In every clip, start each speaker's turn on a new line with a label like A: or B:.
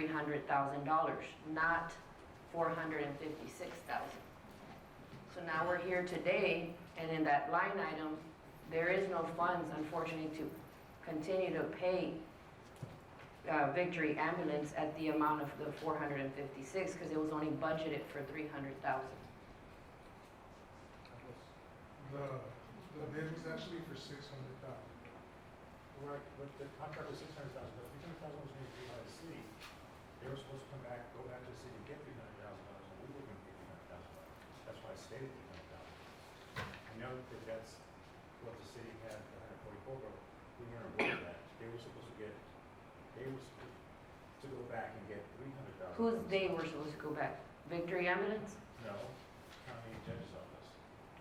A: hundred thousand dollars, not four hundred and fifty-six thousand. So now we're here today, and in that line item, there is no funds unfortunately to continue to pay uh, Victory Ambulance at the amount of the four hundred and fifty-six, because it was only budgeted for three hundred thousand.
B: The, the bid was actually for six hundred thousand.
C: Right, but the contract was six hundred thousand, but three hundred thousand was made by the city. They were supposed to come back, go back to the city and get three hundred thousand dollars, and we were gonna get three hundred thousand dollars. That's why I stated three hundred thousand. I know that that's what the city had, the hundred forty program, we weren't aware of that. They were supposed to get, they were supposed to go back and get three hundred thousand.
A: Who's they were supposed to go back? Victory Ambulance?
C: No, county judge's office.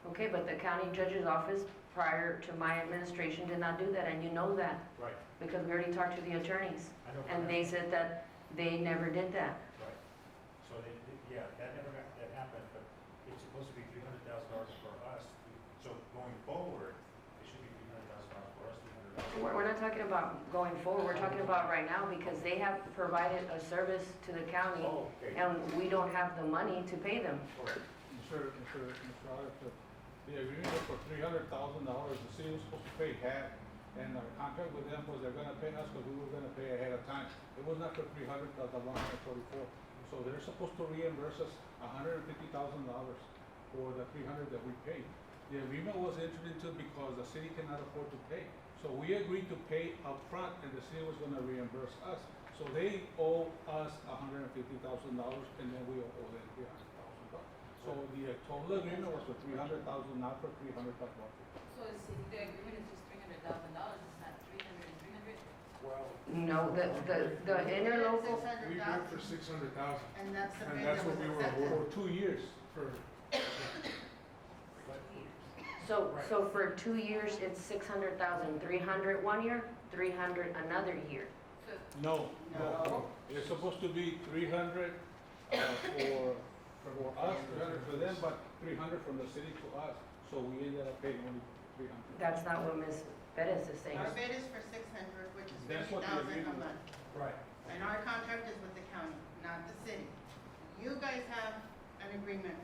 A: Okay, but the county judge's office prior to my administration did not do that, and you know that,
C: Right,
A: because we already talked to the attorneys,
C: I know.
A: and they said that they never did that.
C: Right. So they, they- yeah, that never, got- that happened, but it's supposed to be three hundred thousand dollars for us. So going forward, it should be three hundred thousand dollars for us, three hundred dollars.
A: We're we're not talking about going forward, we're talking about right now, because they have provided a service to the county,
C: Oh, okay,
A: and we don't have the money to pay them.
C: correct.
D: Mr. Mr. Mr. Auditor, the agreement was for three hundred thousand dollars, the city was supposed to pay half, and our contract with them was they're gonna pay us, because we were gonna pay ahead of time. It was not for three hundred, but the one hundred forty-four. So they're supposed to reimburse us hundred and fifty thousand dollars for the three hundred that we paid. The agreement was entered into because the city cannot afford to pay. So we agreed to pay upfront, and the city was gonna reimburse us. So they owe us hundred and fifty thousand dollars, and then we owe them three hundred thousand dollars. So the total agreement was for three hundred thousand, not for three hundred but one.
E: So it's, the agreement is just three hundred thousand dollars, it's not three hundred and three hundred?
C: Well,
A: No, the, the, the interlocal,
B: We bid for six hundred thousand
E: and that's
B: the And bid that's that what was we were accepted.
D: For two years.
B: for,
C: but
A: so, so for two years, it's six hundred thousand, three hundred one year, three hundred another year.
E: So,
D: No.
E: No.
D: It's supposed to be three hundred uh, for, for us, three hundred for them, but three hundred from the city to us. So we ended up paying only three hundred.
A: That's not what Ms. Perez is saying.
F: Our bid is for six hundred, which is
D: That's
F: fifty
D: what the
F: thousand a
D: agreement-
F: month.
C: right,
F: And our contract is with the county, not the city. You guys have an agreement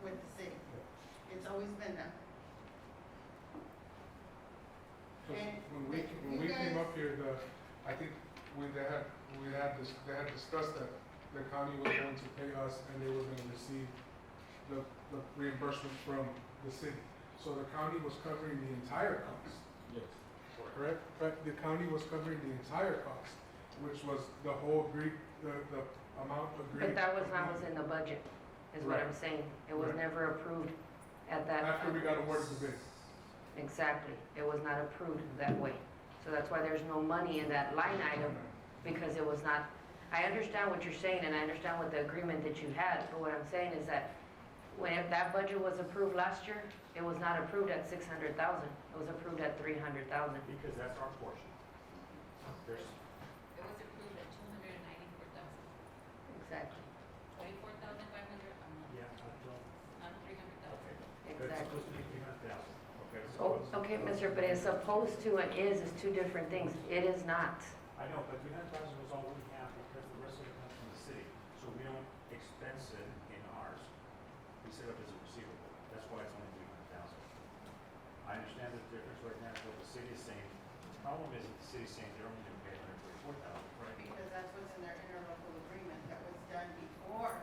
F: with the city. It's always been that. And
B: when we, when
F: you
B: we came
F: guys-
B: up here, the, I think we, they had, we had, dis- they had discussed that the county was going to pay us and they were gonna receive the, the reimbursement from the city. So the county was covering the entire cost.
D: Yes.
B: correct? But the county was covering the entire cost, which was the whole agreed, the, the amount agreed.
A: But that was not what's in the budget, is what I'm
B: Right.
A: saying. It was
B: Right.
A: never approved at that.
B: After we got awarded the bid.
A: Exactly. It was not approved that way. So that's why there's no money in that line item, because it was not, I understand what you're saying, and I understand what the agreement that you had, but what I'm saying is that when that budget was approved last year, it was not approved at six hundred thousand. It was approved at three hundred thousand.
C: because that's our portion. There's,
E: it was approved at two hundred and ninety-four thousand,
A: Exactly,
E: twenty-four thousand five hundred a month,
C: yeah, I
E: not three hundred
C: don't,
E: thousand.
C: okay. But it's
A: exactly.
C: supposed to be three hundred thousand, okay?
A: Oh,
C: so-
A: okay, Mr. Perez, supposed to and is is two different things. It is not.
C: I know, but three hundred thousand was all we have because the rest of it comes from the city. So we don't expense it in ours. We set up as a receivable. That's why it's only three hundred thousand. I understand the difference right now, is what the city is saying. The problem is that the city's saying they're only gonna pay hundred forty-four thousand. Right.
F: because that's what's in their interlocal agreement that was done before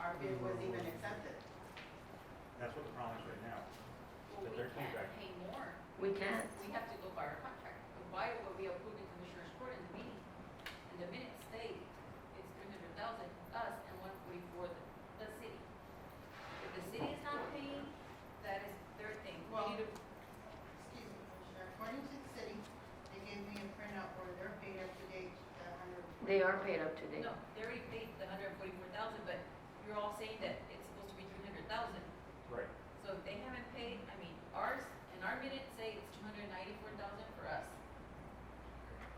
F: our bid was even accepted.
C: That's what the problem is right now.
E: Well, we
C: Their
E: can't
C: contract.
E: pay more,
A: We can't.
E: we have to go by our contract. But Why were we approved in Commissioner's Court in the meeting? And the minutes state it's three hundred thousand, us, and one forty-four, the, the city. If the city is not paying, that is their thing.
F: Well-
E: We need to
F: Excuse me, Commissioner, according to the city, they gave me a printout where they're paid up to date, the hundred.
A: They are paid up to date.
E: No, they already paid the hundred and forty-four thousand, but you're all saying that it's supposed to be three hundred thousand.
C: Right.
E: So if they haven't paid, I mean, ours, and our minutes say it's two hundred and ninety-four thousand for us.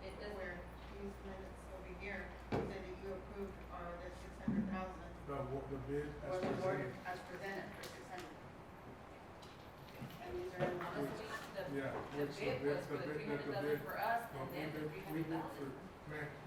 E: It doesn't,
F: Where these minutes over here said that you approved our, the six hundred thousand
B: The, wa- the bid as
F: was awarded
B: presented.
F: as presented for six hundred. And these are in
E: honestly, the,
B: Yeah,
E: the
B: which the
E: bid
B: bid-
E: was
B: the
E: for the
B: bid-
E: three
B: the- the
E: hundred thousand
B: bid-
E: for us,
B: Well,
E: and
B: we
E: then the
B: bid,
E: three
B: we
E: hundred
B: bid
E: thousand.
B: for, man,